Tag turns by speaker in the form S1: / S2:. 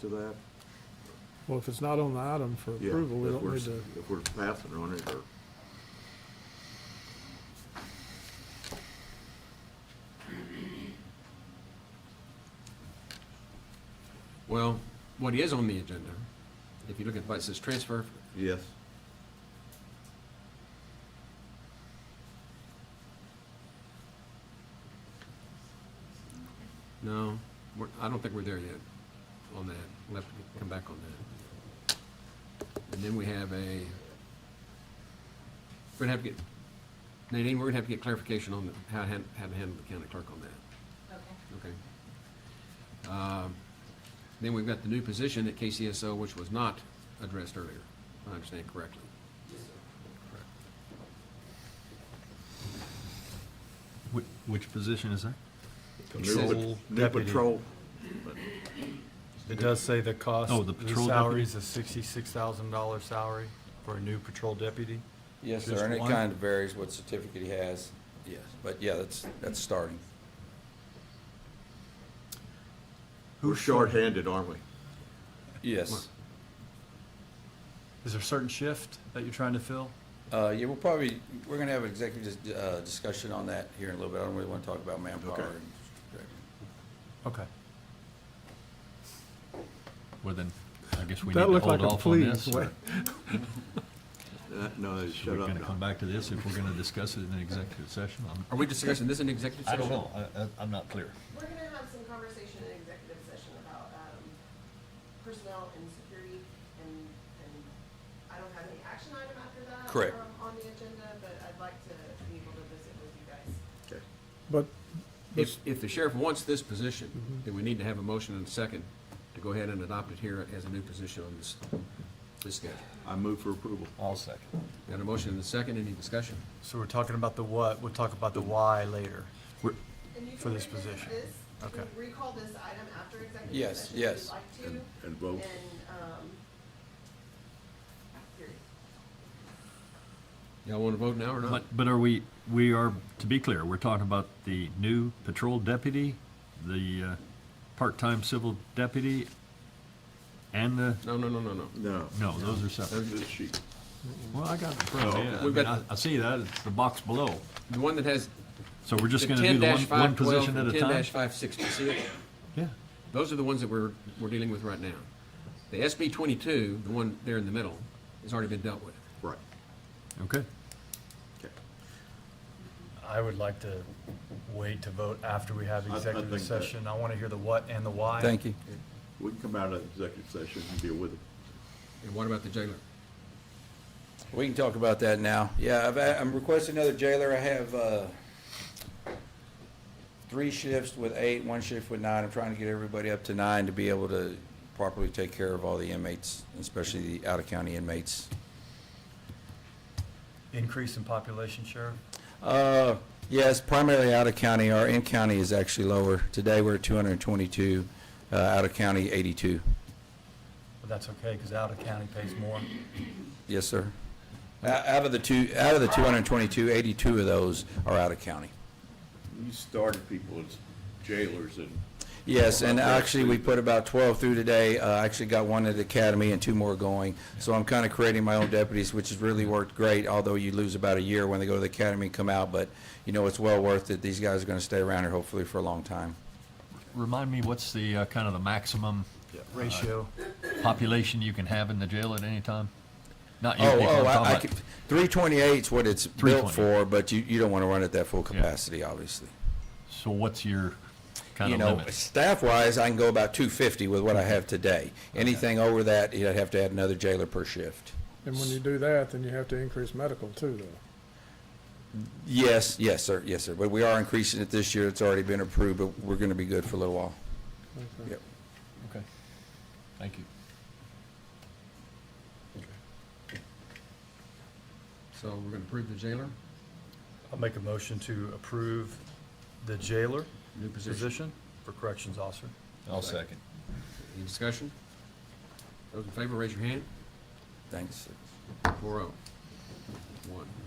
S1: to that?
S2: Well, if it's not on the item for
S1: Yeah,
S2: approval, we
S1: if
S2: don't
S1: we're-
S2: need to,
S1: If we're passing on it, or,
S3: Well, what is on the agenda, if you look at, it says transfer,
S1: yes,
S3: no, we're, I don't think we're there yet on that. We'll have to come back on that. And then we have a, we're gonna have to get, Nadine, we're gonna have to get clarification on the- how to han- how to handle the county clerk on that,
S4: Okay.
S3: okay? Um, Then we've got the new position at KCSO, which was not addressed earlier, if I understand correctly.
S5: Which, which position is that?
S1: new pat-
S5: Patrol
S1: new
S5: deputy.
S1: patrol,
S6: It does say the cost,
S5: Oh, the
S6: the
S5: patrol
S6: salary is a sixty-six thousand dollar salary for a new patrol deputy.
S7: Yes,
S6: Just
S7: sir, and it
S6: one?
S7: kind of varies what certificate he has. Yes. But yeah, that's, that's starting.
S1: we're shorthanded, aren't we?
S7: Yes.
S6: Is there a certain shift that you're trying to fill?
S7: Uh, yeah, we'll probably, we're gonna have an executive, dis- uh, discussion on that here in a little bit. I don't really wanna talk about manpower.
S1: Okay.
S7: and-
S6: Okay.
S5: Well, then, I guess we need
S2: that
S5: to
S2: looked like
S5: hold
S2: a
S5: off on
S2: please.
S5: this. We're
S1: Uh, No, shut up
S5: gonna come
S1: now.
S5: back to this if we're gonna discuss it in an executive session. I'm-
S3: Are we discussing this in executive
S5: I
S3: session?
S5: don't know, I, I- I'm not clear.
S4: We're gonna have some conversation in executive session about, um, personnel and security, and, and I don't have any action item after that.
S7: Correct.
S4: um, On the agenda, but I'd like to be able to visit with you guys.
S1: Okay.
S2: but
S3: If, if the sheriff wants this position, then we need to have a motion and a second to go ahead and adopt it here as a new position on this, this schedule.
S1: I move for approval.
S5: I'll second.
S3: Got a motion and a second, any discussion?
S6: So we're talking about the what, we'll talk about the why later.
S5: We're,
S4: And you
S6: For
S4: can
S6: this
S4: revisit
S6: position.
S4: this, you can
S6: Okay.
S4: Recall this item after executive
S7: Yes,
S4: session
S7: yes.
S4: if you'd like to.
S1: And- and vote.
S4: And, um, period.
S3: Y'all wanna vote now or not?
S5: but, but are we, we are, to be clear, we're talking about the new patrol deputy, the, uh, part-time civil deputy, and the,
S3: No, no, no, no, no.
S1: No,
S5: no, those are separate.
S1: that's the sheet.
S5: Well, I got it in front of me. I
S3: We've
S5: mean, I,
S3: got-
S5: I see that, it's the box below.
S3: The one that has
S5: So we're
S3: the
S5: just gonna do
S3: ten
S5: the one,
S3: dash
S5: one
S3: five twelve
S5: position at
S3: and
S5: a
S3: ten
S5: time?
S3: dash five sixty, see it?
S5: Yeah,
S3: Those are the ones that we're, we're dealing with right now. The SB twenty-two, the one there in the middle, has already been dealt with.
S1: Right,
S5: okay.
S1: okay.
S6: I would like to wait to vote after we have
S1: I- I
S6: executive
S1: think that-
S6: session. I want to hear the what and the why.
S7: Thank you.
S1: We can come out of executive session and deal with it.
S3: And what about the jailer?
S7: We can talk about that now. Yeah, I've, I'm requesting another jailer. I have, uh, three shifts with eight, one shift with nine. I'm trying to get everybody up to nine to be able to properly take care of all the inmates, especially the out-of-county inmates.
S6: Increase in population, Sheriff?
S7: Uh, yes, primarily out of county. Our in-county is actually lower. Today, we're at 222, uh, out of county, 82.
S6: But that's okay, because out of county pays more.
S7: Yes, sir. O- Out of the two, out of the 222, 82 of those are out of county.
S1: You started people as jailers and
S7: Yes, and actually, we put about 12 through today. Uh, I actually got one at the academy and two more going. So I'm kind of creating my own deputies, which has really worked great, although you lose about a year when they go to the academy and come out. But, you know, it's well worth it. These guys are going to stay around here hopefully for a long time.
S5: Remind me, what's the, uh, kind of the maximum
S6: Ratio.
S5: population you can have in the jail at any time? Not you,
S7: Oh,
S5: people,
S7: oh,
S5: I'm
S7: I, I
S5: talking
S7: could,
S5: about,
S7: three twenty-eight's what it's built
S5: 328.
S7: for, but you, you don't wanna run at that full
S5: Yeah.
S7: capacity, obviously.
S5: so what's your kind
S7: You
S5: of
S7: know,
S5: limit?
S7: staff-wise, I can go about two fifty with what I have today. Anything over that, you'd have to add another jailer per shift.
S2: And when you do that, then you have to increase medical too, though.
S7: Yes, yes, sir, yes, sir, but we are increasing it this year, it's already been approved, but we're gonna be good for a little while.
S2: Okay.
S7: Yep.
S5: Okay, thank you.
S3: So we're gonna approve the jailer,
S6: I'll make a motion to approve the jailer
S3: new position.
S6: position for corrections officer.
S5: I'll second.
S3: Any discussion? Those in favor, raise your hand.
S7: Thanks.
S3: Four oh. One.